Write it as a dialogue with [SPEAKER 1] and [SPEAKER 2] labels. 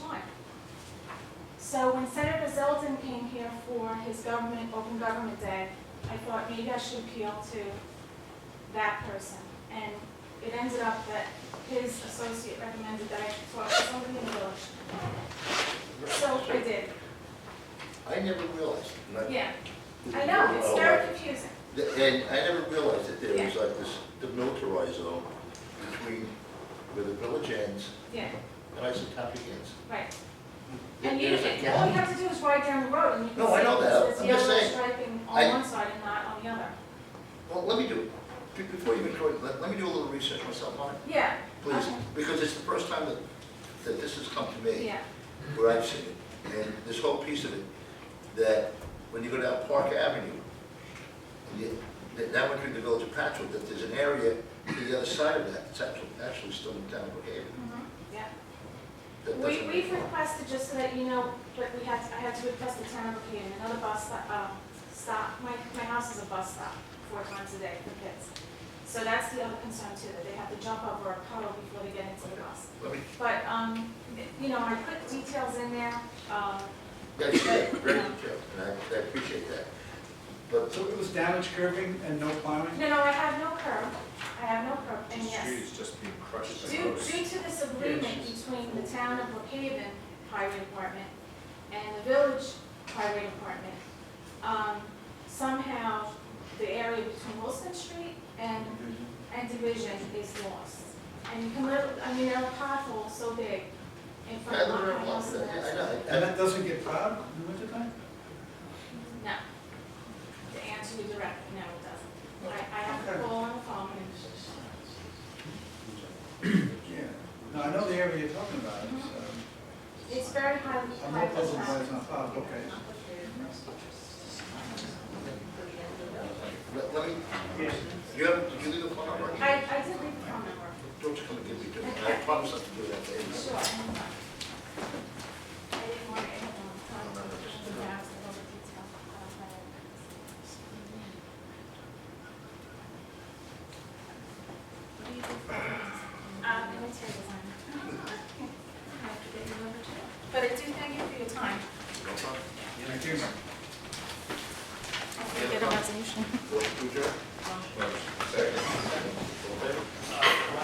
[SPEAKER 1] So when Senator Zeldin came here for his government, Open Government Day, I thought maybe I should appeal to that person. And it ended up that his associate recommended that I should talk to somebody in the village. So I did,
[SPEAKER 2] I never realized, and
[SPEAKER 1] yeah. I know, it's very confusing.
[SPEAKER 2] I- and I never realized that there was like this demilitarized zone between where the village ends
[SPEAKER 1] Yeah,
[SPEAKER 2] and Isotopy ends.
[SPEAKER 1] right.
[SPEAKER 2] There-
[SPEAKER 1] And you, Oh,
[SPEAKER 2] There's a
[SPEAKER 1] all you
[SPEAKER 2] gap.
[SPEAKER 1] have to do is ride down the road and you can
[SPEAKER 2] No, I know
[SPEAKER 1] see
[SPEAKER 2] that.
[SPEAKER 1] it's
[SPEAKER 2] I'm just
[SPEAKER 1] yellow
[SPEAKER 2] saying.
[SPEAKER 1] striping
[SPEAKER 2] I-
[SPEAKER 1] on one side and not on the other.
[SPEAKER 2] Well, let me do, be- before you intro, let, let me do a little research myself on it,
[SPEAKER 1] Yeah,
[SPEAKER 2] please,
[SPEAKER 1] Okay.
[SPEAKER 2] because it's the first time that, that this has come to me,
[SPEAKER 1] yeah,
[SPEAKER 2] where I've seen it. And this whole piece of it, that when you go down Park Avenue, and you, that, that went through the village of Patchogue, that there's an area to the other side of that, it's actually, actually still in town of Brookhaven.
[SPEAKER 1] mhm, yeah.
[SPEAKER 2] That
[SPEAKER 1] We,
[SPEAKER 2] doesn't-
[SPEAKER 1] we've requested, just so that you know, but we had, to- I had to request the town of Brookhaven, another bus stop, um, stop, my, my house is a bus stop four times a day for kids. So that's the other concern too, that they have to jump over a puddle before they get into the bus.
[SPEAKER 2] Let me,
[SPEAKER 1] But, um, you know, I put details in there, um,
[SPEAKER 2] yeah, sure, great detail, and I, I appreciate that. But,
[SPEAKER 3] So it was damage curving and no plowing?
[SPEAKER 1] no, no, I have no curb, I have no curb, and yes.
[SPEAKER 4] Street is just being crushed by
[SPEAKER 1] Due,
[SPEAKER 4] roads.
[SPEAKER 1] due to this agreement between the town of Brookhaven Highway Department and the village highway department, um, somehow the area between Wilson Street and, and Division is lost. And you can literally, I mean, there are potholes so big in
[SPEAKER 2] I
[SPEAKER 1] front
[SPEAKER 2] don't
[SPEAKER 1] of
[SPEAKER 2] know,
[SPEAKER 1] my house. and
[SPEAKER 2] I
[SPEAKER 1] that's-
[SPEAKER 2] know, I-
[SPEAKER 3] And that doesn't get plowed in the wintertime?
[SPEAKER 1] No. To answer you directly, no, it doesn't. I, I have to call on the phone and,
[SPEAKER 3] Yeah. No, I know the area you're talking about,
[SPEAKER 1] it's very high.
[SPEAKER 3] I'm
[SPEAKER 1] high
[SPEAKER 3] not puzzled why
[SPEAKER 1] traffic.
[SPEAKER 3] it's not plowed, okay.
[SPEAKER 2] Let, let me, you have, did you leave a phone number?
[SPEAKER 1] I, I did leave the phone number.
[SPEAKER 2] Don't you come and give me, do it. I promise not to do that to
[SPEAKER 1] Sure.
[SPEAKER 2] anybody.
[SPEAKER 1] I didn't want anyone to talk about it. Yeah, I was a little detailed about that. What do you do for things? Um, military design. I have to get you over to it. But I do thank you for your time.
[SPEAKER 2] No problem.
[SPEAKER 3] Thank you.
[SPEAKER 1] I'll get a resolution.
[SPEAKER 2] What, do you, Joe?